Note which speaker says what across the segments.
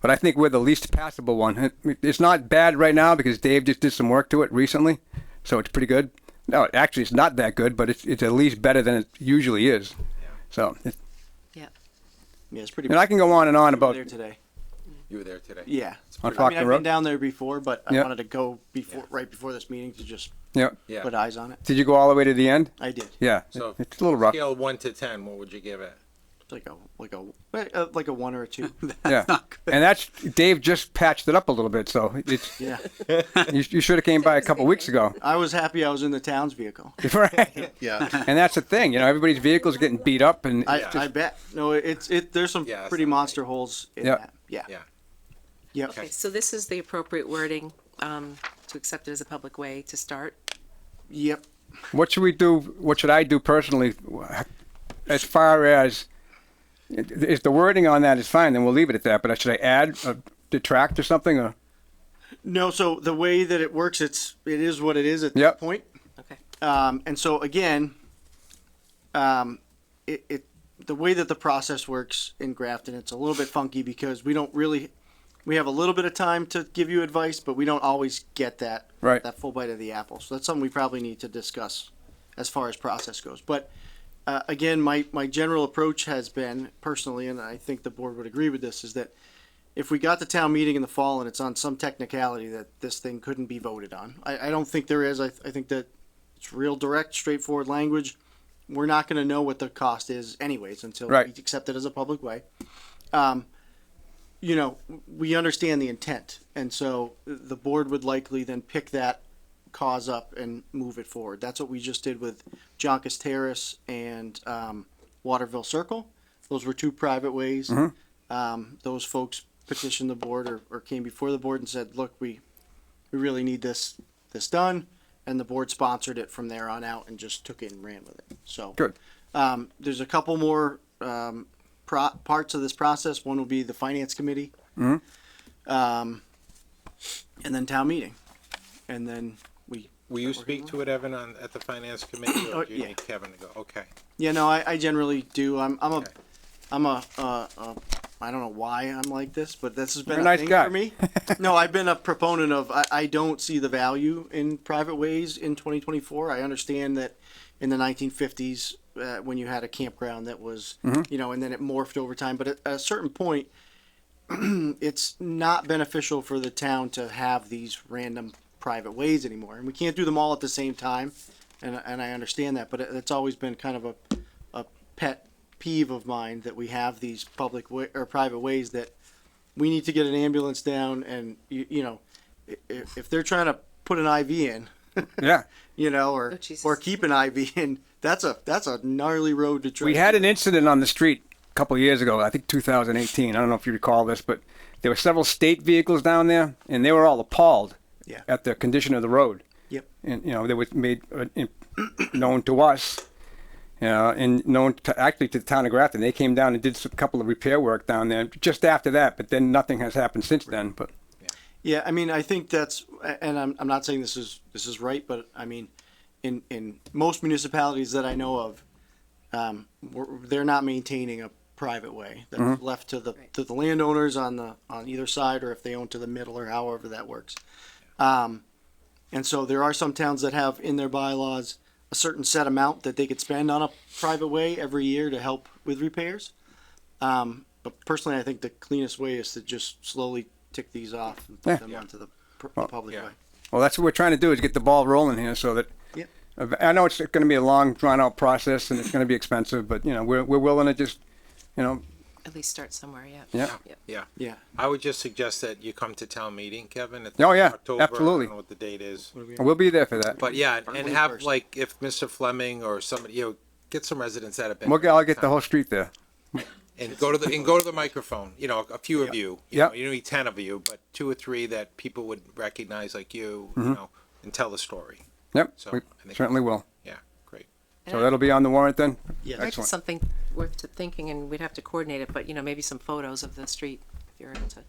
Speaker 1: but I think we're the least passable one. It's not bad right now because Dave just did some work to it recently, so it's pretty good. No, actually, it's not that good, but it's, it's at least better than it usually is. So, it-
Speaker 2: Yeah.
Speaker 3: Yeah, it's pretty.
Speaker 1: and I can go on and on
Speaker 3: we were
Speaker 1: about
Speaker 3: there today.
Speaker 4: You were there today.
Speaker 3: Yeah.
Speaker 1: On
Speaker 3: I mean,
Speaker 1: Faulkner
Speaker 3: I've
Speaker 1: Road?
Speaker 3: been down there before, but I
Speaker 1: Yeah.
Speaker 3: wanted to go before, right before this meeting to just
Speaker 1: yeah.
Speaker 4: Yeah.
Speaker 3: put eyes on it.
Speaker 1: Did you go all the way to the end?
Speaker 3: I did.
Speaker 1: Yeah,
Speaker 4: So
Speaker 1: it's a little rough.
Speaker 4: Scale one to ten, what would you give it?
Speaker 3: Like a like a uh, like a one or a two.
Speaker 1: Yeah, and that's Dave just patched it up a little bit, so it's
Speaker 3: yeah.
Speaker 1: you, you should have came by a couple weeks ago,
Speaker 3: I was happy I was in the town's vehicle.
Speaker 1: right?
Speaker 3: Yeah.
Speaker 1: And that's the thing, you know, everybody's vehicle's getting beat up, and
Speaker 3: I,
Speaker 1: it's
Speaker 3: I
Speaker 1: just,
Speaker 3: bet. No, it's it. There's some
Speaker 4: Yeah, it's
Speaker 3: pretty
Speaker 4: not right.
Speaker 3: monster holes in
Speaker 1: Yeah.
Speaker 3: that. Yeah.
Speaker 4: Yeah.
Speaker 3: Yep.
Speaker 2: Okay, so this is the appropriate wording, um, to accept it as a public way to start.
Speaker 3: Yep.
Speaker 1: what should we do? What should I do personally, as far as if the wording on that is fine, then we'll leave it at that. But should I add, or detract, or something? Or
Speaker 3: No, so the way that it works, it's it is what it is at this
Speaker 1: Yep.
Speaker 3: point.
Speaker 2: Okay.
Speaker 3: Um, and so again, um, it, it the way that the process works in Grafton, it's a little bit funky because we don't really we have a little bit of time to give you advice, but we don't always get that
Speaker 1: Right.
Speaker 3: that full bite of the apple. So that's something we probably need to discuss as far as process goes. But uh, again, my my general approach has been personally, and I think the board would agree with this, is that if we got to town meeting in the fall and it's on some technicality that this thing couldn't be voted on, I, I don't think there is. I, I think that it's real direct, straightforward language. We're not going to know what the cost is anyways until
Speaker 1: Right.
Speaker 3: we accept it as a public way. Um, you know, we understand the intent, and so the board would likely then pick that cause up and move it forward. That's what we just did with Joncas Terrace and um, Waterville Circle. Those were two private ways. Um, those folks petitioned the board or, or came before the board and said, "Look, we we really need this this done," and the board sponsored it from there on out and just took it and ran with it. So
Speaker 1: Good.
Speaker 3: Um, there's a couple more um, pro- parts of this process. One will be the finance committee, um, and then town meeting, and then we
Speaker 4: Will you speak to it, Evan, on, at the finance committee,
Speaker 3: Oh,
Speaker 4: or do you
Speaker 3: yeah.
Speaker 4: need Kevin to go? Okay.
Speaker 3: Yeah, no, I, I generally do. I'm I'm a
Speaker 4: Okay.
Speaker 3: I'm a, uh, a I don't know why I'm like this, but this has been
Speaker 1: You're a
Speaker 3: a
Speaker 1: nice
Speaker 3: thing
Speaker 1: guy.
Speaker 3: for me. no, I've been a proponent of I, I don't see the value in private ways in 2024. I understand that in the 1950s uh, when you had a campground that was
Speaker 1: Mm-hmm.
Speaker 3: you know and then it morphed over time, but at a certain point it's not beneficial for the town to have these random private ways anymore, and we can't do them all at the same time. And and I understand that, but it- it's always been kind of a a pet peeve of mine that we have these public wa- or private ways that we need to get an ambulance down, and you, you know, if, if they're trying to put an IV in,
Speaker 1: yeah,
Speaker 3: you know, or
Speaker 2: Oh, Jesus.
Speaker 3: or keep an IV in, that's a that's a gnarly road to. Travel.
Speaker 1: we had an incident on the street a couple of years ago. I think 2018. I don't know if you recall this, but there were several state vehicles down there, and they were all appalled
Speaker 3: Yeah.
Speaker 1: at the condition of the road.
Speaker 3: Yep.
Speaker 1: and you know that was made uh, in- known to us, you know, and known to, actually to the town of Grafton. They came down and did a couple of repair work down there just after that, but then nothing has happened since then. But
Speaker 3: Yeah, I mean, I think that's, and I'm, I'm not saying this is this is right, but I mean, in in most municipalities that I know of, um, we're, they're not maintaining a private way that's left to the to the landowners on the on either side, or if they own to the middle, or however that works. Um, and so there are some towns that have in their bylaws a certain set amount that they could spend on a private way every year to help with repairs. Um, but personally, I think the cleanest way is to just slowly tick these off and put
Speaker 1: Yeah.
Speaker 3: them onto the, pr- the public
Speaker 4: yeah.
Speaker 3: way.
Speaker 1: well, that's what we're trying to do is get the ball rolling here, so that.
Speaker 3: Yep.
Speaker 1: I know it's going to be a long, drawn-out process, and it's going to be expensive, but you know we're we're willing to just, you know,
Speaker 2: At least start somewhere, yeah.
Speaker 1: Yeah.
Speaker 2: Yep.
Speaker 4: Yeah.
Speaker 3: Yeah.
Speaker 4: I would just suggest that you come to town meeting, Kevin. at the
Speaker 1: Oh, yeah,
Speaker 4: October,
Speaker 1: absolutely.
Speaker 4: I don't know what the date is.
Speaker 1: we'll be there for that.
Speaker 4: But yeah, and
Speaker 3: October
Speaker 4: have
Speaker 3: first.
Speaker 4: like, if Mr. Fleming or somebody, you know, get some residents out of bed.
Speaker 1: We'll get, I'll get the whole street there.
Speaker 4: And go to the, and go to the microphone, you know, a few of you. you
Speaker 1: Yeah.
Speaker 4: know, You don't need ten of you, but two or three that people would recognize like you,
Speaker 1: Mm-hmm.
Speaker 4: you know, and tell the story.
Speaker 1: Yep,
Speaker 4: So,
Speaker 1: we
Speaker 4: I think-
Speaker 1: certainly will.
Speaker 4: Yeah, great.
Speaker 1: So that'll be on the warrant then.
Speaker 3: Yes.
Speaker 2: I heard
Speaker 1: Excellent.
Speaker 2: Something worth to thinking, and we'd have to coordinate it, but, you know, maybe some photos of the street, if you're able to.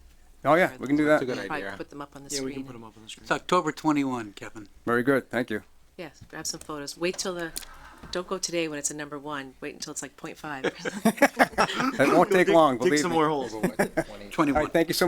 Speaker 1: Oh yeah, we can do that.
Speaker 4: That's a good
Speaker 2: Probably
Speaker 4: idea.
Speaker 2: Put them up on the
Speaker 3: Yeah, we can
Speaker 2: screen.
Speaker 3: put them up on the screen.
Speaker 5: It's October 21, Kevin.
Speaker 1: Very good. Thank you.
Speaker 2: Yes, grab some photos. Wait till the, don't go today when it's a number one. Wait until it's like point five.
Speaker 1: It won't take long.
Speaker 3: Dig
Speaker 1: Believe
Speaker 3: some
Speaker 1: me.
Speaker 3: more holes.
Speaker 5: 21.
Speaker 1: All right, thank you so